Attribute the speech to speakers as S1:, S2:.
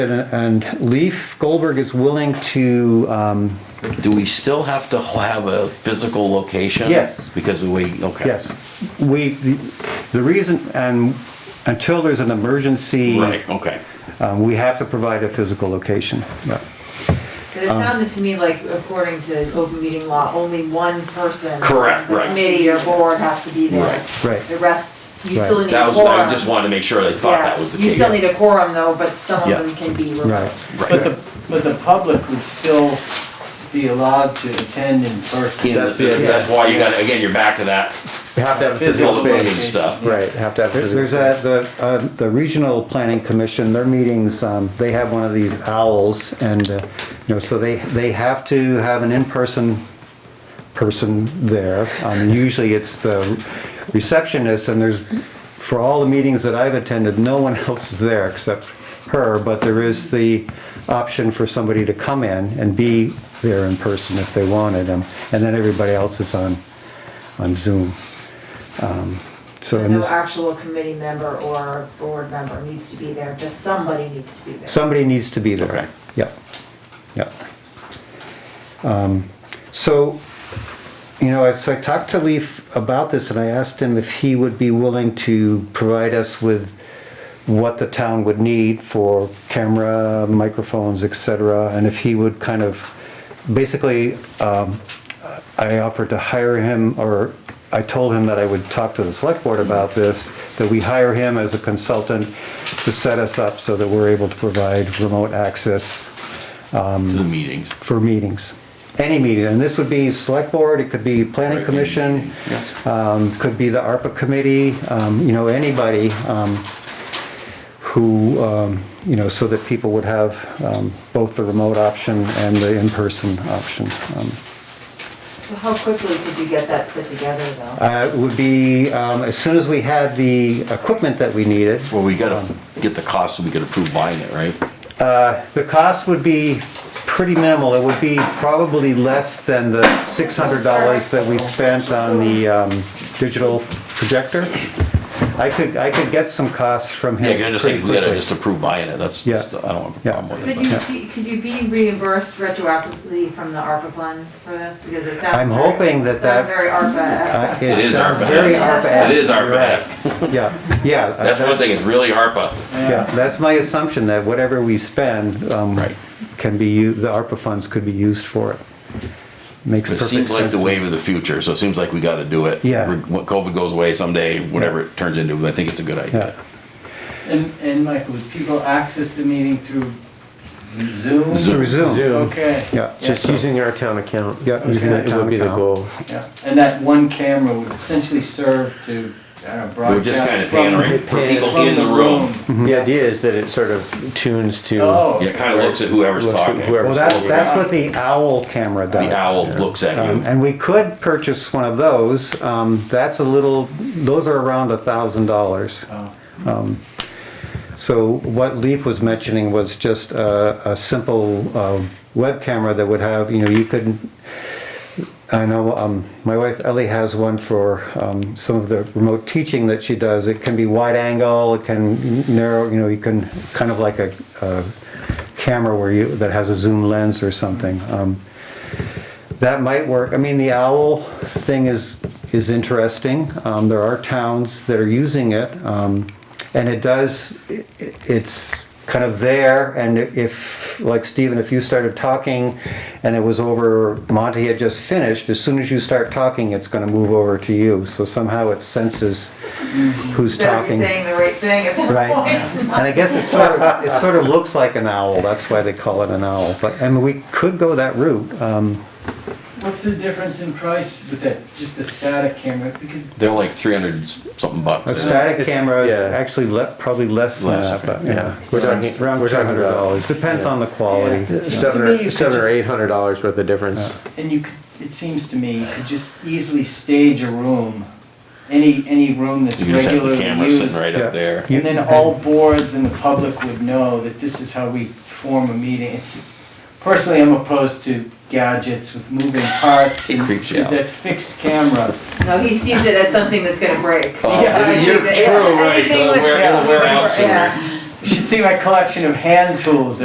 S1: And and Leaf Goldberg is willing to, um,
S2: Do we still have to have a physical location?
S1: Yes.
S2: Because of we, okay.
S1: yes, we, the the reason, and until there's an emergency.
S2: Right, okay.
S1: uh, We have to provide a physical location.
S3: But it
S2: Um,
S3: sounded to me like, according to open meeting law, only one person.
S2: Correct,
S3: on the
S2: right.
S3: Committee or board has to be there.
S2: Right,
S1: right.
S3: The rest, you still
S1: Right.
S3: need a
S2: That
S3: quorum.
S2: was, I just wanted to make sure I thought
S3: Yeah,
S2: that was the
S3: You
S2: case.
S3: still need a quorum though, but some
S2: Yeah.
S3: of them can be
S1: Right.
S3: remote.
S4: But
S2: Right.
S4: the, but the public would still be allowed to attend in person.
S2: In the-
S5: That's the-
S2: That's why you gotta, again, you're back to that
S5: You have to have a physical
S2: physical looking
S5: space.
S2: stuff.
S5: Right, have to have
S1: There's
S5: physical
S1: there's
S5: space.
S1: a, the, uh, the Regional Planning Commission, their meetings, um, they have one of these owls and, uh, you know, so they, they have to have an in-person person there. Um, Usually it's the receptionist and there's, for all the meetings that I've attended, no one else is there except her, but there is the option for somebody to come in and be there in person if they wanted and, and then everybody else is on, on Zoom. Um, So in
S3: No
S1: this-
S3: actual committee member or board member needs to be there, just somebody needs to be there.
S1: Somebody needs to be there.
S2: Okay.
S1: Yep, yep. Um, So, you know, I- so I talked to Leaf about this and I asked him if he would be willing to provide us with what the town would need for camera, microphones, et cetera, and if he would kind of, basically, um, I offered to hire him, or I told him that I would talk to the select board about this, that we hire him as a consultant to set us up so that we're able to provide remote access
S2: To the meetings.
S1: for meetings. Any meeting, and this would be select board, it could be planning
S2: Right, any
S1: commission,
S2: meeting, yes.
S1: um, could be the ARPA committee, um, you know, anybody, um, who, um, you know, so that people would have, um, both the remote option and the in-person option. Um,
S3: How quickly could you get that put together though?
S1: Uh, it would be, um, as soon as we had the equipment that we needed,
S2: Well, we gotta get the cost so we can approve buying it, right?
S1: the cost would be pretty minimal. It would be probably less than the six hundred dollars that we spent on the, um, digital projector. I could, I could get some costs from
S2: Yeah,
S1: him
S2: you're just
S1: pretty
S2: saying, we gotta
S1: quickly.
S2: just approve buying it, that's,
S1: Yeah.
S2: that's- I don't have a
S1: Yeah.
S2: problem with it.
S3: Could you, be- could you be reimbursed retroactively from the ARPA funds for this? Because it sounds.
S1: I'm
S3: very-
S1: hoping that
S3: sounds
S1: that-
S3: Very
S1: Uh,
S3: ARPA.
S2: It is
S1: sounds
S2: ARPA-esque.
S1: Very ARPA.
S2: but- It is
S1: You're right.
S2: ARPA-esque,
S1: Yeah, yeah. uh,
S2: that's one thing, it's really ARPA.
S1: Yeah, that's my assumption, that whatever we spend, um,
S2: Right.
S1: can be, u- the ARPA funds could be used for it. Makes
S2: It
S1: perfect sense.
S2: seems like the
S1: to me.
S2: wave of the future, so it seems like we gotta do it.
S1: Yeah.
S2: Re- When COVID goes away someday, whatever it turns into, I think it's a good idea.
S1: Yeah.
S4: And, and Michael, would people access the meeting through Zoom?
S1: Through Zoom,
S5: Zoom,
S4: Okay.
S1: yeah,
S5: just using our town account.
S1: Yeah, using our
S5: It
S1: town
S5: would be the
S1: account.
S5: goal.
S4: Yeah. And that one camera would essentially serve to, I don't know, broadcast.
S2: We're just kinda
S4: from-
S2: pandering for people
S4: from
S2: in the room.
S1: Mm-hmm.
S5: The idea is that it sort of tunes to.
S4: Oh.
S2: Yeah, kinda looks at whoever's
S5: Looks at
S2: talking.
S5: whoever's
S1: well, that, that's what the owl camera does.
S2: The owl looks at
S1: Um,
S2: you.
S1: And we could purchase one of those, um, that's a little, those are around a thousand dollars. Um,
S4: Oh.
S1: So what Leaf was mentioning was just a, a simple uh, web camera that would have, you know, you could, I know, um, my wife Ellie has one for um, some of the remote teaching that she does. It can be wide angle, it can narrow, you know, you can, kind of like a, a camera where you, that has a zoom lens or something. Um, that might work. I mean, the owl thing is, is interesting. Um, there are towns that are using it. Um, and it does, i- i- it's kind of there. And if, like Stephen, if you started talking and it was over, Monty had just finished, as soon as you start talking, it's gonna move over to you. So somehow it senses who's
S3: Better be
S1: talking.
S3: saying the right thing at
S1: Right.
S3: that point.
S1: And I guess it sort of, it sort of looks like an owl. That's why they call it an owl. But, and we could go that route. Um,
S4: What's the difference in price with that, just the static camera? Because
S2: They're like three hundred something
S1: A
S2: bucks.
S1: static
S5: It's-
S1: camera is
S5: yeah.
S1: actually le- probably less than
S2: Less,
S1: that, but
S2: okay.
S1: yeah.
S5: We're talking,
S1: Around
S5: we're
S1: two
S5: talking
S1: hundred
S5: about
S1: dollars, depends on the quality.
S5: seven
S4: To me, you
S5: or,
S4: could
S5: seven or
S4: just-
S5: eight hundred dollars worth of difference.
S4: And you could, it seems to me, you could just easily stage a room, any, any room that's
S2: You can just have the
S4: regularly
S2: camera
S4: used.
S2: sitting right
S1: Yeah.
S2: up there.
S4: And then all boards and the public would know that this is how we form a meeting. It's, personally, I'm opposed to gadgets with moving parts.
S2: It
S4: and
S2: creeps you
S4: with
S2: out.
S4: That fixed camera.
S3: No, he sees it as something that's gonna break.
S2: Oh,
S4: Yeah,
S2: you're
S3: Anything
S2: true, right, uh,
S3: with-
S2: it'll wear, it'll wear out
S3: Yeah.
S2: sooner.
S4: You should see my collection of hand tools